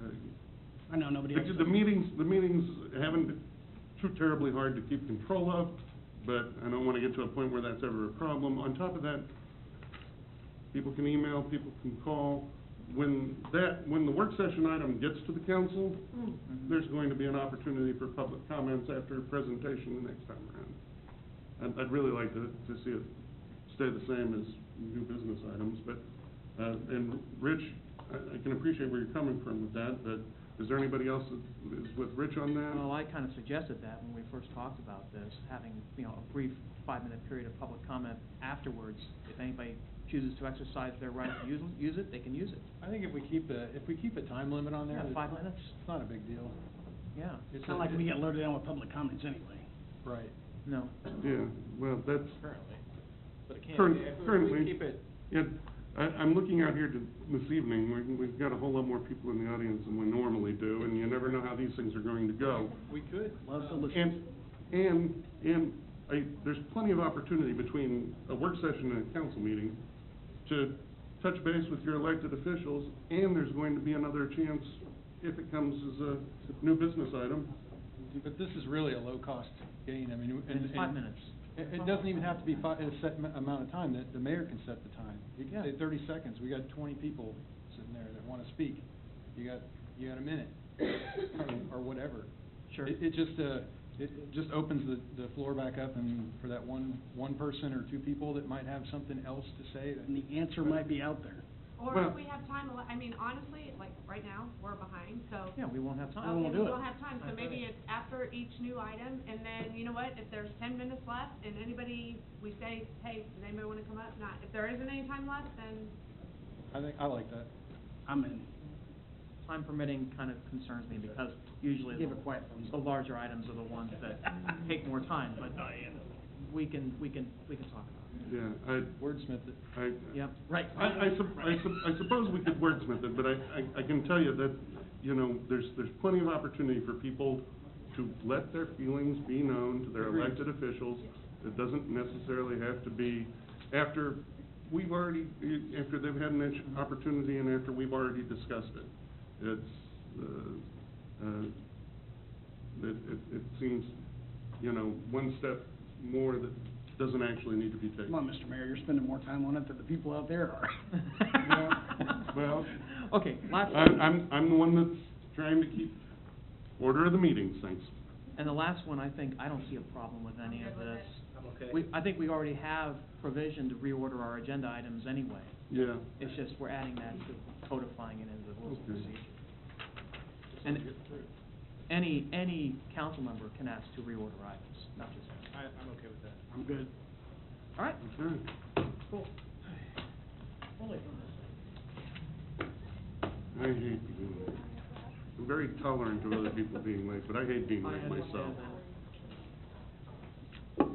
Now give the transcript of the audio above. I know, nobody else. It's- The meetings, the meetings haven't been too terribly hard to keep control of, but I don't want to get to a point where that's ever a problem. On top of that, people can email, people can call. When that, when the work session item gets to the council, there's going to be an opportunity for public comments after a presentation the next time around. I'd, I'd really like to, to see it stay the same as new business items, but, uh, and Rich, I, I can appreciate where you're coming from with that, but is there anybody else that is with Rich on Well, that? I kind of suggested that when we first talked about this, having, you know, a brief five-minute period of public comment afterwards. If anybody chooses to exercise their right to use, use it, they can use it. I think if we keep a, if we keep a time limit on there. Yeah, it's- five minutes. It's not a big deal. Yeah, It's not like we get loaded down with public comments anyway. Right. no. Yeah, well, that's, currently, but it can't Current- be, if we- if currently. we keep it, yeah, I, I'm looking out here to, this evening, we, we've got a whole lot more people in the audience than we normally do, and you never know how these things are going to go. we could. Love to um, listen. And, and, and I, there's plenty of opportunity between a work session and a council meeting to touch base with your elected officials, and there's going to be another chance, if it comes as a new business item, But this is really a low-cost gain, I mean, and. It's five and minutes. It, Uh-huh. it doesn't even have to be fi a set m- amount of time, that the mayor can set the time. You can say Yeah. thirty seconds, we got twenty people sitting there that wanna speak. You got, you got a minute, or- or whatever. Sure. It, it just, uh, it it just opens the, the floor back up and for that one, one person or two people that might have something else to say that. And the answer might be out there. Or Well- if we have time, I mean, honestly, like, right now, we're behind, so. Yeah, we won't have time. I won't do Okay, we it. don't have time, so That's maybe right. it's after each new item, and then, you know what, if there's ten minutes left, and anybody, we say, hey, does anybody wanna come up? Not, if there isn't any time left, then I think, I like that. I'm in. Time permitting kind of concerns me because usually Give the- a quiet thumbs the up. larger items are the ones that take more time, but we can, we can, we can talk about yeah, I, Wordsmith it. I. it. Yep. Right. I, I sup- I sup- I suppose we could wordsmith it, but I, I, I can tell you that, you know, there's, there's plenty of opportunity for people to let their feelings be known to their Agreed. elected officials. It doesn't necessarily have to be after we've already, after they've had an itch- opportunity and after we've already discussed it. It's, uh, uh, it, it, it seems, you know, one step more that doesn't actually need to be taken. Come on, Mr. Mayor, you're spending more time on it than the people out there are. Well- Okay, last. I'm, I'm, I'm the one that's trying to keep order of the meetings, thanks. And the last one, I think, I don't see a problem with any I'm of good with this. I'm okay. We, I think we already have provision to reorder our agenda items anyway. Yeah. It's just we're adding that to codifying it into the rules of Okay. procedure. And any, any council member can ask to reorder items, not just us. I, I'm okay with that. I'm good. All right, Okay. cool. I hate being late. I'm very tolerant of other people being late, but I hate being late myself.